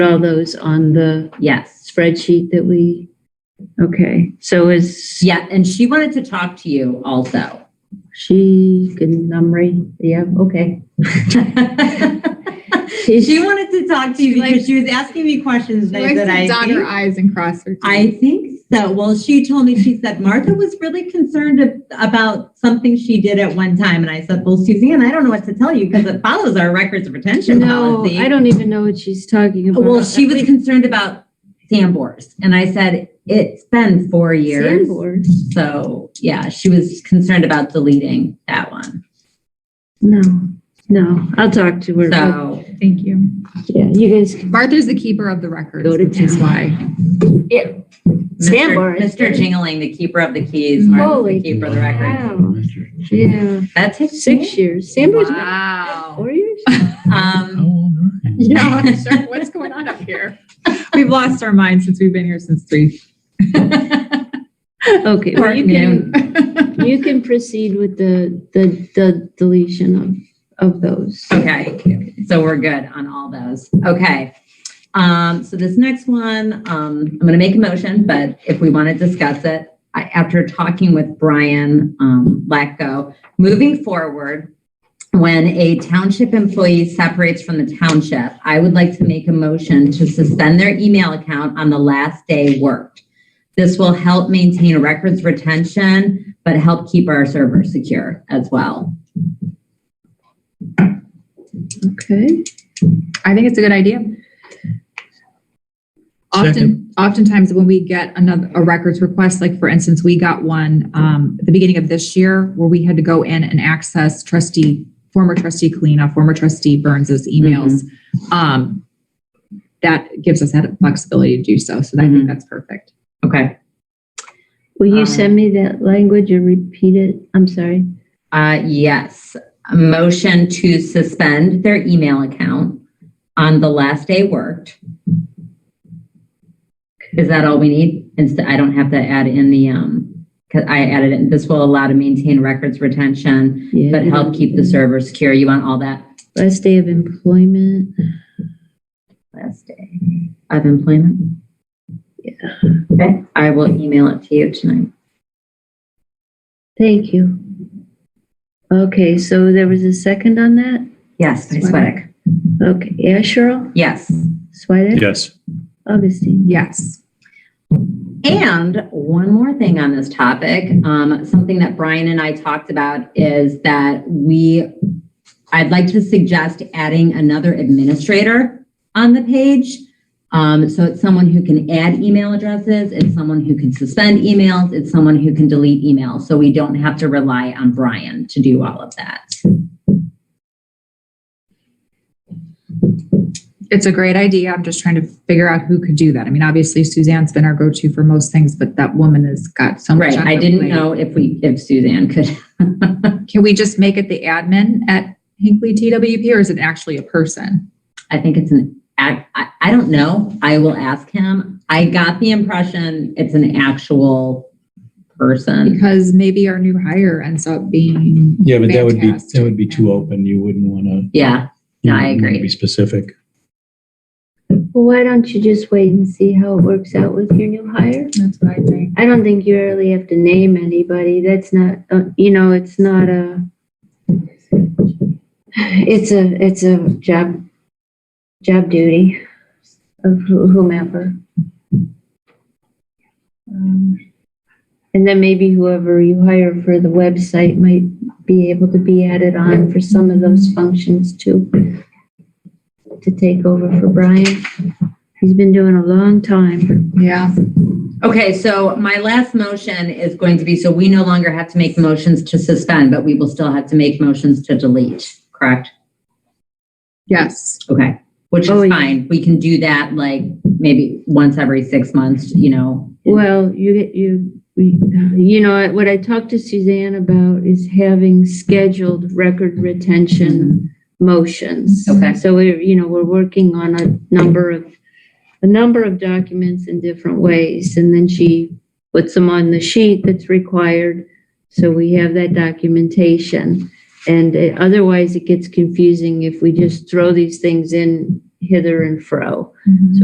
all those on the Yes. spreadsheet that we, okay, so is Yeah, and she wanted to talk to you also. she, can Namri, yeah, okay. She wanted to talk to you because she was asking me questions She likes that to I dot her think i's and cross her t's. I think so. Well, she told me, she said Martha was really concerned ab- about something she did at one time. And I said, well, Suzanne, I don't know what to tell you because it follows our records of retention No, policy. I don't even know what she's talking about. Well, she was concerned about Sambors. And I said, it's been four years. Sandboard? So yeah, she was concerned about deleting that one. No, no, I'll talk to her. So Thank you. Yeah, you guys can Martha's the keeper of the records, Go to which is town. why. Sandbar Mr. is Mr. Jingling, the keeper of the keys, Martha's Holy the keeper of the record. Wow. Yeah, That takes six years. Sandboard's been Wow. four years? Um, Yeah, I'm sure. What's going on up here? We've lost our minds since we've been here since three. Okay, well, you can, you can proceed with the, the, the deletion of, of those. Okay, so we're good on all those. Okay. Um, so this next one, um, I'm gonna make a motion, but if we want to discuss it, I, after talking with Brian, um, Latko, moving forward, when a township employee separates from the township, I would like to make a motion to suspend their email account on the last day worked. This will help maintain records retention, but help keep our server secure as well. Okay. I think it's a good idea. Often, oftentimes when we get another, a records request, like for instance, we got one, um, at the beginning of this year where we had to go in and access trustee, former trustee Kalina, former trustee Burns's emails. Mm-hmm. Um, that gives us that flexibility to do so. So I Mhm. Mm-hmm. think that's perfect. Okay. Will you Um, send me that language or repeat it? I'm sorry. Uh, yes, a motion to suspend their email account on the last day worked. Is that all we need? Instead, I don't have to add in the, um, cause I added it, this will allow to maintain records retention, Yeah, but help keep the server secure. You want all that Last day of employment. last day of employment? Yeah. Okay, I will email it to you tonight. Thank you. Okay, so there was a second on that? Yes, by Sweattick. Okay, yeah, Cheryl, Yes. Swedek, Yes. Augustine. Yes. And one more thing on this topic, um, something that Brian and I talked about is that we, I'd like to suggest adding another administrator on the page. Um, so it's someone who can add email addresses, it's someone who can suspend emails, it's someone who can delete emails. So we don't have to rely on Brian to do all of that. It's a great idea. I'm just trying to figure out who could do that. I mean, obviously Suzanne's been our go-to for most things, but that woman has got so much. Right, on I her didn't plate. know if we, if Suzanne could. Can we just make it the admin at Hinkley TWP or is it actually a person? I think it's an, ac- I, I don't know. I will ask him. I got the impression it's an actual person. Because maybe our new hire ends up being, Yeah, but that would be, Fantastic. that would be too open. You wouldn't want to. Yeah, No, I agree. Be specific. Well, why don't you just wait and see how it works out with your new hire? that's what I think. I don't think you really have to name anybody. That's not, uh, you know, it's not a, it's a, it's a job, job duty of who- whomever. Um, And then maybe whoever you hire for the website might be able to be added on for some of those functions too, to take over for Brian. He's been doing a long time. Yeah, Okay, so my last motion is going to be, so we no longer have to make motions to suspend, but we will still have to make motions to delete, correct? yes. Okay, which Oh, is yeah. fine. We can do that like maybe once every six months, you know? Well, you, you, you know, what I talked to Suzanne about is having scheduled record retention motions. Okay. So we're, you know, we're working on a number of, a number of documents in different ways. And then she puts them on the sheet that's required. So we have that documentation. And it- otherwise it gets confusing if we just throw these things in Mm-hmm. hither and fro.